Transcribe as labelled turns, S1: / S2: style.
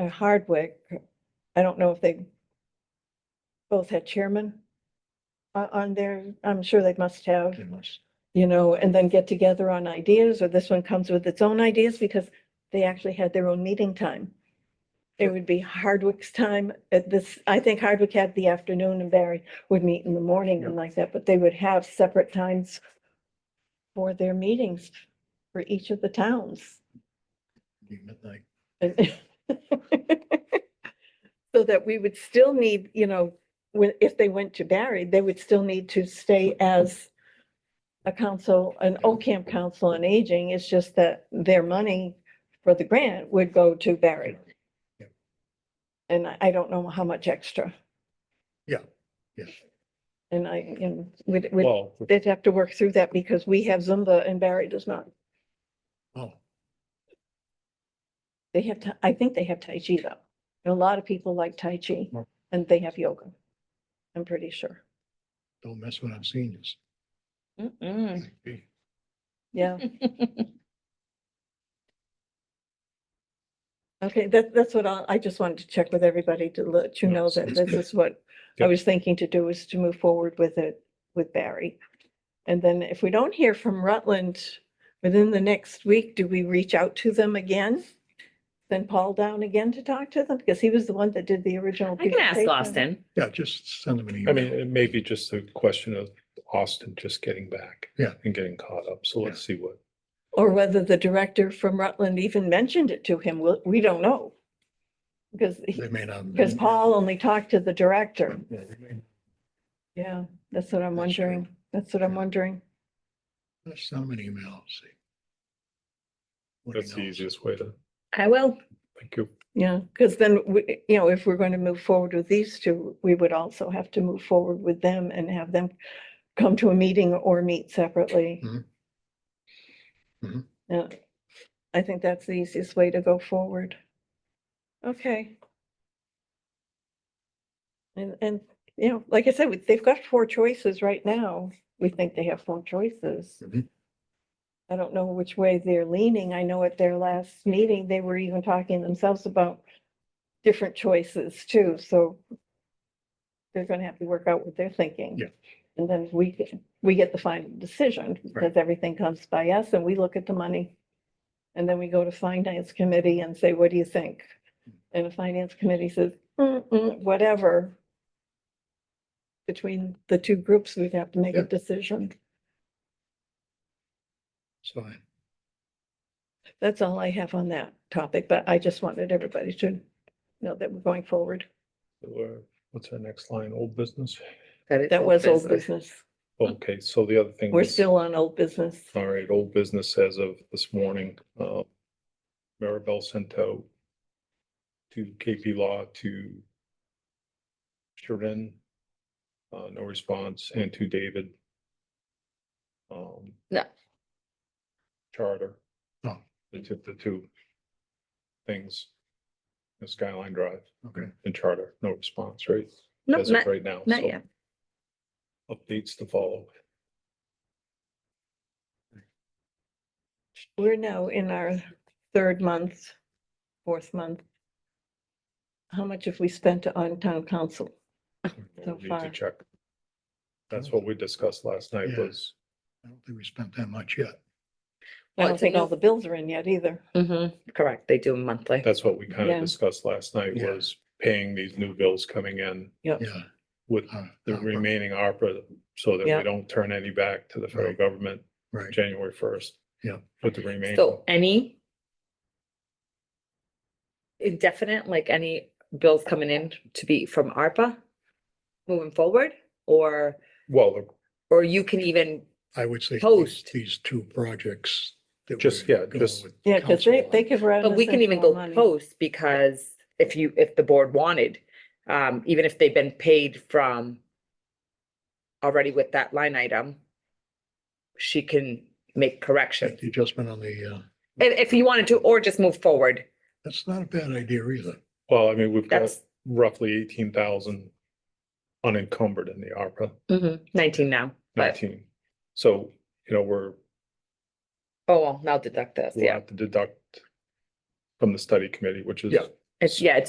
S1: and Hardwick, I don't know if they both had chairman on, on there. I'm sure they must have,
S2: They must.
S1: you know, and then get together on ideas, or this one comes with its own ideas because they actually had their own meeting time. It would be Hardwick's time at this, I think Hardwick had the afternoon and Barry would meet in the morning and like that, but they would have separate times for their meetings for each of the towns.
S2: Be midnight.
S1: And- So that we would still need, you know, when, if they went to Barry, they would still need to stay as a council, an OCAM council on aging. It's just that their money for the grant would go to Barry. And I, I don't know how much extra.
S2: Yeah, yeah.
S1: And I, and we'd, we'd,
S3: Well,
S1: they'd have to work through that because we have Zumba and Barry does not.
S2: Oh,
S1: They have, Ta- I think they have Tai Chi though. And A lot of people like Tai Chi
S2: Mm.
S1: and they have yoga. I'm pretty sure.
S2: don't mess with our seniors. Okay.
S1: Yeah. Okay, that, that's what I, I just wanted to check with everybody to let you
S2: No,
S1: know
S2: it's-
S1: that
S2: it's
S1: this
S2: good.
S1: is what I
S3: Yep.
S1: was thinking to do is to move forward with it with Barry. And then if we don't hear from Rutland within the next week, do we reach out to them again? Send Paul down again to talk to them? Because he was the one that did the original.
S4: I can ask
S1: presentation.
S4: Austin.
S2: Yeah, just send them an email.
S3: I mean, it may be just a question of Austin just getting back.
S2: Yeah.
S3: And getting caught up. So let's see what,
S1: Or whether the director from Rutland even mentioned it to him, we'll- we don't know. Because,
S2: They may not.
S1: because Paul only talked to the
S2: Yeah,
S1: director.
S2: they may-
S1: Yeah, that's what I'm
S2: That's true.
S1: wondering. That's what I'm
S2: Yeah.
S1: wondering.
S2: Just send them an email, see. What he
S3: that's the
S2: knows.
S3: easiest way to,
S4: I will.
S3: thank you.
S1: Yeah, because then, we- you know, if we're going to move forward with these two, we would also have to move forward with them and have them come to a meeting or meet separately.
S2: Mhm. Mhm.
S1: Yeah, I think that's the easiest way to go forward. Okay. And, and, you know, like I said, we- they've got four choices right now. We think they have four choices.
S2: Mhm.
S1: I don't know which way they're leaning. I know at their last meeting, they were even talking themselves about different choices too, so they're gonna have to work out what they're thinking.
S2: Yeah.
S1: And then we, get- we get the final decision, because everything comes by us and we look at the money. And then we go to finance committee and say, what do you think? And the finance committee says, "Mm-mm, whatever. Between the two groups, we'd have to make a
S2: Yeah.
S1: decision.
S2: It's fine.
S1: That's all I have on that topic, but I just wanted everybody to know that we're going forward.
S3: So, uh, What's our next line? Old business?
S1: That was old business.
S3: Okay, so the other thing.
S1: We're
S3: was-
S1: still on old business.
S3: All right, old business as of this morning, uh, Maribel sent out to KP Law to Sharon, uh, no response, and to David. Um.
S4: Yeah.
S3: Charter.
S2: Oh.
S3: The two, the two things. The Skyline Drive
S2: Okay.
S3: and Charter, no response, right?
S4: Nope,
S3: As of
S4: not,
S3: right now.
S4: not
S3: so
S4: yet.
S3: Updates to follow.
S1: We're now in our third month, fourth month. How much have we spent on town council? So
S3: We'll need
S1: far.
S3: to check. That's what we discussed last night
S2: Yeah.
S3: was
S2: I don't think we spent that much yet.
S1: I
S4: Well,
S1: don't
S4: it's a
S1: think all
S4: new-
S1: the bills are in yet either.
S4: Mhm, Correct, they do monthly.
S3: That's what we kind
S1: Yeah.
S3: of discussed last night
S2: Yeah.
S3: was paying these new bills coming in
S2: Yeah.
S3: with
S2: uh,
S3: the
S2: uh,
S3: remaining ARPA. So that
S1: Yeah.
S3: we don't turn any back to the federal
S2: Right.
S3: government
S2: Right.
S3: January first.
S2: Yeah.
S3: With the remaining,
S4: So any indefinite, like any bills coming in to be from ARPA moving forward? Or,
S3: well, the-
S4: or you can even,
S2: I would say these,
S4: Post.
S2: these two projects. that
S3: Just,
S2: we're
S3: yeah,
S2: going
S3: just-
S2: with
S1: Yeah, because
S2: council
S1: they,
S2: on.
S1: they could. run
S4: but
S1: us
S4: we can
S1: into
S4: even
S1: more
S4: go
S1: money.
S4: post because if you, if the board wanted, um, even if they've been paid from already with that line item, she can make corrections.
S2: The adjustment on the, uh,
S4: If, if you wanted to, or just move forward,
S2: that's not a bad idea either.
S3: well, I mean, we've got
S4: that's
S3: roughly eighteen thousand unencumbered in the ARPA
S4: nineteen now, but,
S3: nineteen. So, you know, we're,
S4: oh, well, now deduct this,
S3: we'll
S4: yeah.
S3: have to deduct from the study committee, which is
S2: Yeah.
S4: It's, yeah, it's